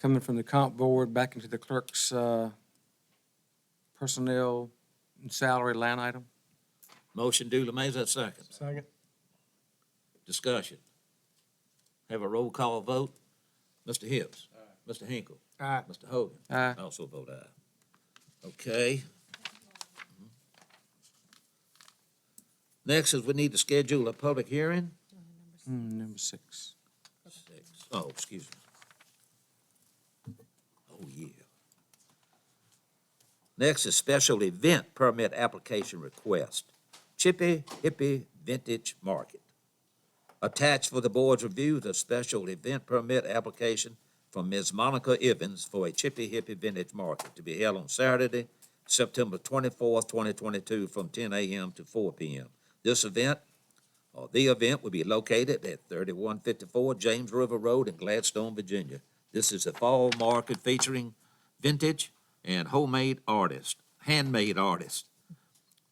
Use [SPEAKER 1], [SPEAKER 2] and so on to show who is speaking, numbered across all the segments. [SPEAKER 1] coming from the comp board back into the clerk's uh, personnel and salary line item.
[SPEAKER 2] Motion duly made, is that second?
[SPEAKER 3] Second.
[SPEAKER 2] Discussion. Have a roll call vote. Mr. Hibbs. Mr. Hinkle.
[SPEAKER 3] Aye.
[SPEAKER 2] Mr. Hogan.
[SPEAKER 1] Aye.
[SPEAKER 2] I Also vote aye. Okay. Next is we need to schedule a public hearing.
[SPEAKER 1] Hmm, Number six.
[SPEAKER 2] Six. Oh, excuse me. Oh, yeah. Next is special event permit application request. Chippy Hippie Vintage Market. Attached for the board's review, the special event permit application from Ms. Monica Evans for a Chippy Hippie Vintage Market to be held on Saturday, September twenty-fourth, twenty twenty-two, from ten AM to four PM. This event uh, The event will be located at 3154 James River Road in Gladstone, Virginia. This is a fall market featuring vintage and homemade artists, handmade artists.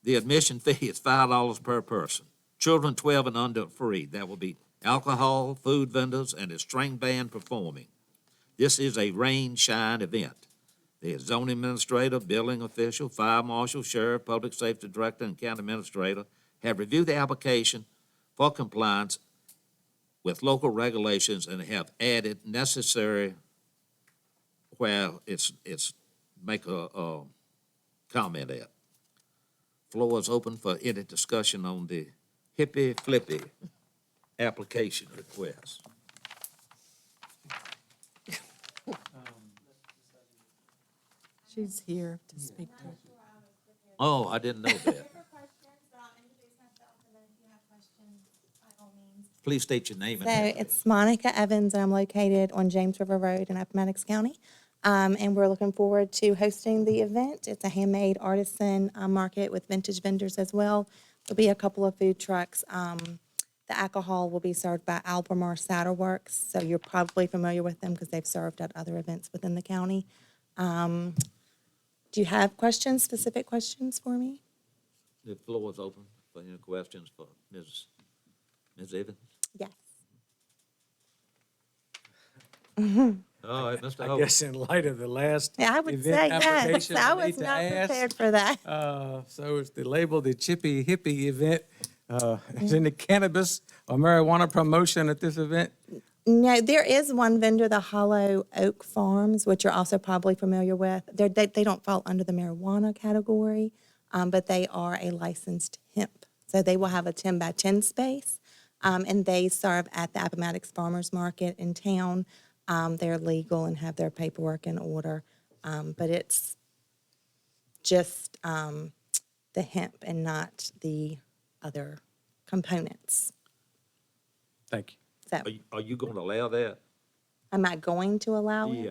[SPEAKER 2] The admission fee is $5 per person. Children 12 and under are free. There will be alcohol, food vendors, and a string band performing. This is a rain shine event. The zoning administrator, building official, fire marshal, sheriff, public safety director, and county administrator have reviewed the application for compliance with local regulations and have added necessary where it's, it's, make a, a comment at. Floor is open for any discussion on the hippy flippy application request.
[SPEAKER 4] She's here to speak to it.
[SPEAKER 2] Oh, I didn't know that.
[SPEAKER 5] For questions, um, introduce myself, and then if you have questions, by all means.
[SPEAKER 2] Please state your name and
[SPEAKER 5] So
[SPEAKER 2] address.
[SPEAKER 5] it's Monica Evans, and I'm located on James River Road in Appomattox County. Um, and we're looking forward to hosting the event. It's a handmade artisan uh, market with vintage vendors as well. There'll be a couple of food trucks. Um, the alcohol will be served by Albemarle Cider Works, so you're probably familiar with them because they've served at other events within the county. Um, do you have questions, specific questions for me?
[SPEAKER 2] The floor is open for any questions for Ms. Ms. Evans.
[SPEAKER 5] Yes.
[SPEAKER 2] All right, Mr.
[SPEAKER 1] I
[SPEAKER 2] Hogan.
[SPEAKER 1] guess in light of the last
[SPEAKER 5] Yeah, I would
[SPEAKER 1] event
[SPEAKER 5] say yes.
[SPEAKER 1] application,
[SPEAKER 5] I
[SPEAKER 1] we need
[SPEAKER 5] was
[SPEAKER 1] to
[SPEAKER 5] not
[SPEAKER 1] ask,
[SPEAKER 5] prepared for that.
[SPEAKER 1] uh, So it's the label, the Chippy Hippie event. uh, Is any cannabis or marijuana promotion at this event?
[SPEAKER 5] No, there is one vendor, the Hollow Oak Farms, which you're also probably familiar with. They're, they they don't fall under the marijuana category, um, but they are a licensed hemp. So they will have a ten by ten space, um, and they serve at the Appomattox Farmers Market in town. Um, they're legal and have their paperwork in order, um, but it's just um, the hemp and not the other components.
[SPEAKER 1] Thank you.
[SPEAKER 5] So,
[SPEAKER 2] Are you, are you going to allow that?
[SPEAKER 5] am I going to allow it?
[SPEAKER 2] Yeah,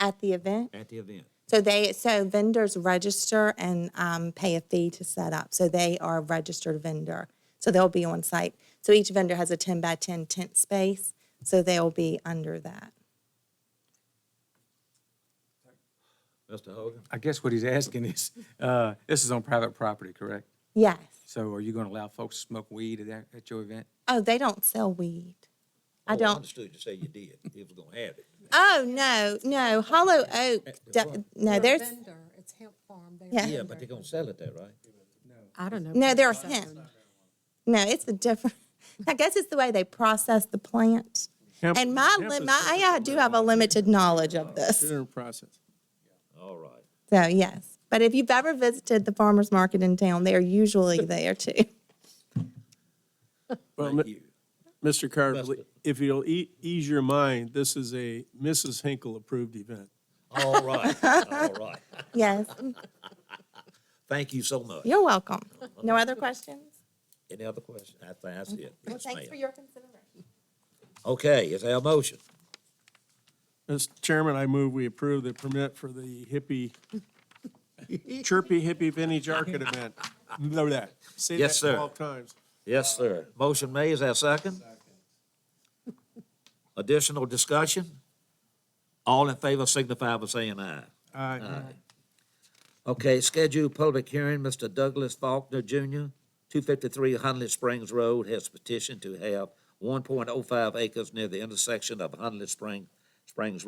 [SPEAKER 5] at the event.
[SPEAKER 2] at the event.
[SPEAKER 5] So they, so vendors register and um, pay a fee to set up. So they are a registered vendor. So they'll be on site. So each vendor has a 10 by 10 tent space. So they'll be under that.
[SPEAKER 2] Mr. Hogan?
[SPEAKER 1] I guess what he's asking is, uh, this is on private property, correct?
[SPEAKER 5] Yes.
[SPEAKER 1] So are you going to allow folks to smoke weed at that- at your event?
[SPEAKER 5] Oh, they don't sell weed. I
[SPEAKER 2] Oh,
[SPEAKER 5] don't.
[SPEAKER 2] Understood you say you did. He was gonna have it.
[SPEAKER 5] Oh, no, no. Hollow Oak, do-
[SPEAKER 4] They're
[SPEAKER 5] no,
[SPEAKER 4] a
[SPEAKER 5] there's,
[SPEAKER 4] vendor. It's hemp farm. They're a
[SPEAKER 5] Yeah.
[SPEAKER 2] Yeah, but they're
[SPEAKER 4] vendor.
[SPEAKER 2] gonna sell it there, right?
[SPEAKER 4] I don't know.
[SPEAKER 5] No, they're
[SPEAKER 4] what it's
[SPEAKER 5] hemp.
[SPEAKER 4] on.
[SPEAKER 5] no, it's a different, I guess it's the way they process the plant.
[SPEAKER 3] Hemp-
[SPEAKER 5] And my,
[SPEAKER 3] hemp
[SPEAKER 5] li-
[SPEAKER 3] is
[SPEAKER 5] my, I do have a limited knowledge of this.
[SPEAKER 3] Considered process.
[SPEAKER 2] All right.
[SPEAKER 5] So yes, but if you've ever visited the farmers market in town, they are usually there too.
[SPEAKER 3] Well,
[SPEAKER 2] Thank
[SPEAKER 3] Mi-
[SPEAKER 2] you.
[SPEAKER 3] Mr. Carter,
[SPEAKER 2] Mr.
[SPEAKER 3] if you'll ea- ease your mind, this is a Mrs. Hinkle approved event.
[SPEAKER 2] All right, all right.
[SPEAKER 5] Yes,
[SPEAKER 2] Thank you so much.
[SPEAKER 5] you're welcome. No other questions?
[SPEAKER 2] Any other questions? I think that's it.
[SPEAKER 5] Well,
[SPEAKER 2] Yes,
[SPEAKER 5] thanks for
[SPEAKER 2] ma'am.
[SPEAKER 5] your consideration.
[SPEAKER 2] Okay, is there a motion?
[SPEAKER 3] Mr. Chairman, I move we approve the permit for the hippie, chirpy hippie vintage arcade event. Know that. Say
[SPEAKER 2] Yes,
[SPEAKER 3] that
[SPEAKER 2] sir.
[SPEAKER 3] twelve times.
[SPEAKER 2] Yes, sir. Motion made, is there a second? Additional discussion? All in favor signify by saying aye.
[SPEAKER 3] Aye.
[SPEAKER 2] Okay, scheduled public hearing, Mr. Douglas Faulkner Jr., two fifty-three Huntley Springs Road, has petitioned to have one point oh five acres near the intersection of Huntley Spring, Springs